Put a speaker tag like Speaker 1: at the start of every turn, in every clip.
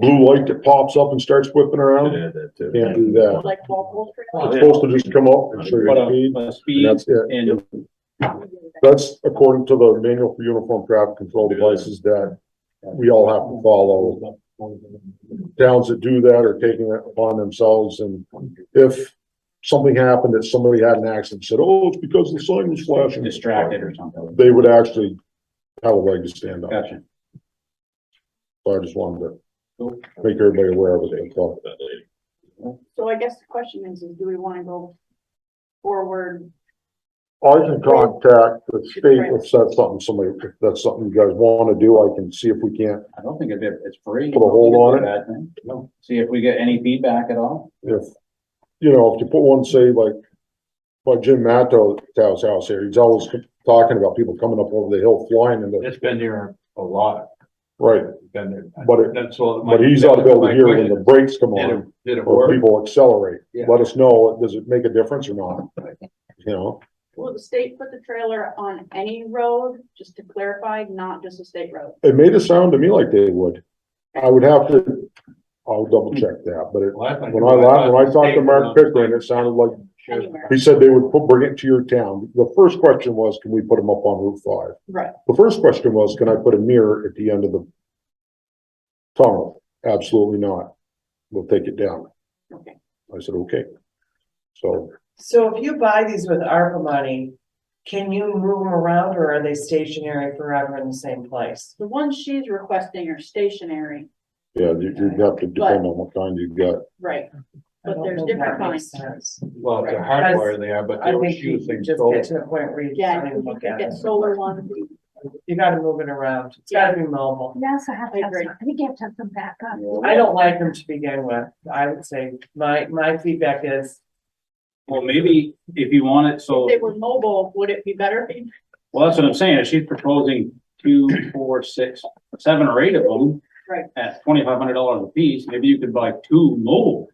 Speaker 1: blue light that pops up and starts whipping
Speaker 2: Could
Speaker 1: around,
Speaker 2: add that too.
Speaker 1: can't do that.
Speaker 3: like Walpole
Speaker 2: Oh,
Speaker 1: It's supposed to just come up and show your
Speaker 2: But, uh,
Speaker 1: speed,
Speaker 2: uh,
Speaker 1: and
Speaker 2: Speed
Speaker 1: that's it.
Speaker 2: and
Speaker 1: Oh,
Speaker 3: Street.
Speaker 1: That's according to the manual for uniform traffic control devices that we all have to follow. Towns that do that are taking it upon themselves and if something happened, that somebody had an accident, said, oh, it's because the sign was flashing.
Speaker 2: distracted or something.
Speaker 1: They would actually have a leg to stand on.
Speaker 2: Gotcha.
Speaker 1: So I just wanted to make everybody aware of it. that's all.
Speaker 3: So I guess the question is, is do we wanna go forward?
Speaker 1: I can contact the state if that's something somebody, if that's something you guys want to do, I can see if we can't,
Speaker 2: I don't think it's, it's free.
Speaker 1: Put a hold on it.
Speaker 2: Bad thing. See if we get any feedback at all.
Speaker 1: if, you know, if you put one, say like, by Jim Matto's house here, he's always talking about people coming up over the hill flying and,
Speaker 4: It's been here a lot,
Speaker 1: right,
Speaker 4: been there.
Speaker 1: But it-
Speaker 4: That's all. my-
Speaker 1: but he's out
Speaker 4: that was
Speaker 1: over
Speaker 4: my
Speaker 1: here when the
Speaker 4: question.
Speaker 1: brakes come
Speaker 4: Did
Speaker 1: on
Speaker 4: it- Did it
Speaker 1: or
Speaker 4: work?
Speaker 1: people accelerate.
Speaker 4: Yeah.
Speaker 1: Let us know, does it make a difference or not? You know,
Speaker 3: Will the state put the trailer on any road, just to clarify, not just a state road?
Speaker 1: it made it sound to me like they would. I would have to, I'll double check that, but it
Speaker 4: Last time-
Speaker 1: When I la when I talked to Mark Pickering, it sounded like,
Speaker 4: Sure.
Speaker 3: Anywhere,
Speaker 1: he said they would put- bring it to your town. The first question was, can we put them up on Route five?
Speaker 3: right,
Speaker 1: The first question was, can I put a mirror at the end of the tunnel? Absolutely not. We'll take it down.
Speaker 3: okay.
Speaker 1: I said, okay. So
Speaker 5: So if you buy these with ARPA money, can you move them around or are they stationary forever in the same place?
Speaker 3: The ones she's requesting are stationary,
Speaker 1: yeah, you, you'd have to depend on what kind you got.
Speaker 3: right,
Speaker 5: I
Speaker 3: But
Speaker 5: don't
Speaker 3: there's
Speaker 5: think
Speaker 3: different
Speaker 5: that makes
Speaker 3: kinds.
Speaker 5: sense.
Speaker 4: Well, they're hardware they are, but
Speaker 5: I
Speaker 4: they were
Speaker 5: think you
Speaker 4: using
Speaker 5: just
Speaker 4: solar.
Speaker 5: get to the point where you
Speaker 3: yeah,
Speaker 5: can't
Speaker 3: you
Speaker 5: even
Speaker 3: can
Speaker 5: look at
Speaker 3: get
Speaker 5: it.
Speaker 3: solar ones.
Speaker 5: You gotta move it around. It's gotta be mobile.
Speaker 6: You also have
Speaker 3: I
Speaker 6: to have
Speaker 3: agree.
Speaker 6: some, I think you have to have some backup.
Speaker 5: I don't like them to begin with. I would say my, my feedback is
Speaker 2: Well, maybe if you want it, so,
Speaker 3: If they were mobile, would it be better?
Speaker 2: well, that's what I'm saying. She's proposing two, four, six, seven or eight of them.
Speaker 3: Right.
Speaker 2: At twenty-five hundred dollars a piece, maybe you could buy two mobile.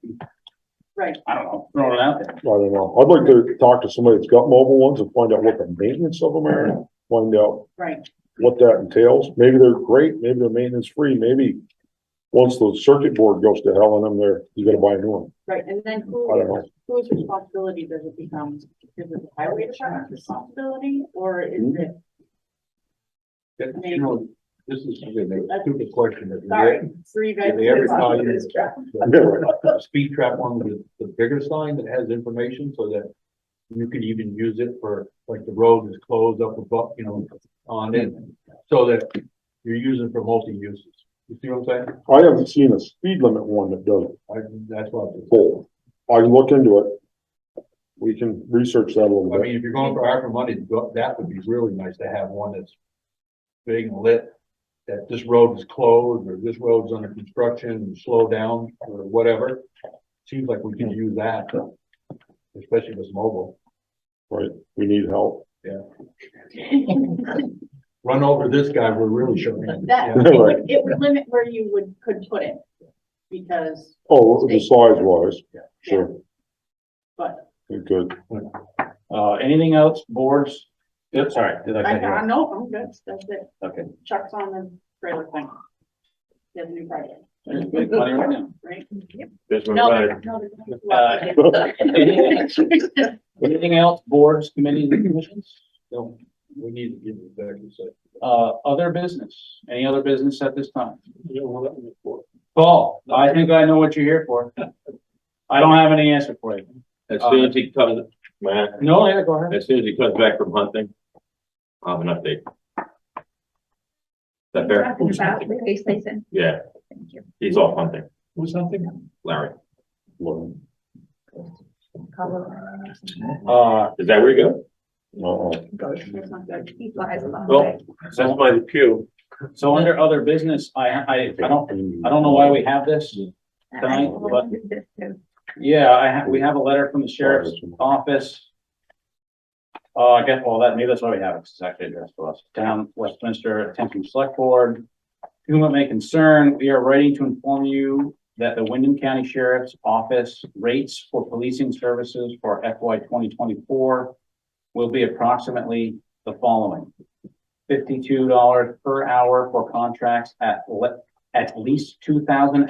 Speaker 3: Right.
Speaker 2: I don't know, throwing it out there.
Speaker 1: I don't know. I'd like to talk to somebody that's got mobile ones and find out what the maintenance of them are. Find out
Speaker 3: Right,
Speaker 1: what that entails. Maybe they're great, maybe they're maintenance free, maybe once the circuit board goes to hell in them there, you gotta buy a new one.
Speaker 3: right, and then
Speaker 1: I don't know.
Speaker 3: who, whose responsibility does it become? Is it the highway department's responsibility, or is
Speaker 1: Mm-hmm.
Speaker 3: it?
Speaker 4: You know, this is something that's a stupid question. that-
Speaker 3: Sorry, three guys.
Speaker 4: Did they ever call you?
Speaker 1: Yeah.
Speaker 4: The Speed trap one with the bigger sign that has information so that you could even use it for, like, the road is closed up above, you know, on it. So that you're using for multi-uses. You see what I'm saying?
Speaker 1: I haven't seen a speed limit one that does
Speaker 4: I, that's what I'm.
Speaker 1: both. I can look into it. We can research that a little
Speaker 4: I
Speaker 1: bit.
Speaker 4: mean, if you're going for ARPA money, go- that would be really nice to have one that's big and lit, that this road is closed, or this road's under construction, and slow down, or whatever. Seems like we could use that, especially with mobile.
Speaker 1: We need help.
Speaker 4: Run over this guy, we're really showing. him.
Speaker 3: That,
Speaker 4: Yeah.
Speaker 3: it would, it would limit where you would, could put it, because,
Speaker 1: Oh, the size wise, sure,
Speaker 3: but,
Speaker 1: You're good.
Speaker 2: Uh, anything else, boards? Yep, sorry, did I
Speaker 3: I,
Speaker 2: cut you off?
Speaker 3: I know, I'm good, that's it,
Speaker 2: Okay.
Speaker 3: Chuck's on the trailer thing. He has a new project,
Speaker 2: Let's Make money right now.
Speaker 3: right?
Speaker 2: There's
Speaker 3: No, they're- no, they're-
Speaker 2: Anything anything else, boards, committees, and commissions? No,
Speaker 4: We need to give it back, it's like,
Speaker 2: uh, other business, any other business at this time? Paul, I think I know what you're here for. I don't have any answer for you.
Speaker 7: As soon as he comes, Matt,
Speaker 2: No, yeah, go ahead.
Speaker 7: as soon as he comes back from hunting, I'll have an update. Is that fair?
Speaker 6: Talking about the base station.
Speaker 7: Yeah,
Speaker 6: Thank you.
Speaker 7: he's off hunting,
Speaker 4: Who's something?
Speaker 7: Larry.
Speaker 2: Uh,
Speaker 7: Is that where you go?
Speaker 1: Uh-uh.
Speaker 6: Goes, it's not good. He flies a lot.
Speaker 7: Well, that's my pew.
Speaker 2: so under other business, I, I, I don't, I don't know why we have this.
Speaker 6: And I
Speaker 2: tonight,
Speaker 6: will
Speaker 2: but-
Speaker 6: do this too.
Speaker 2: Yeah, I have, we have a letter from the sheriff's office. Uh, I guess, well, that, maybe that's why we have it, 'cause it's actually addressed to us. Town Westminster, Attention Select Board. To whom it may concern, we are writing to inform you that the Wyndham County Sheriff's Office rates for policing services for FY twenty twenty-four will be approximately the following. Fifty-two dollars per hour for contracts at le- at least two thousand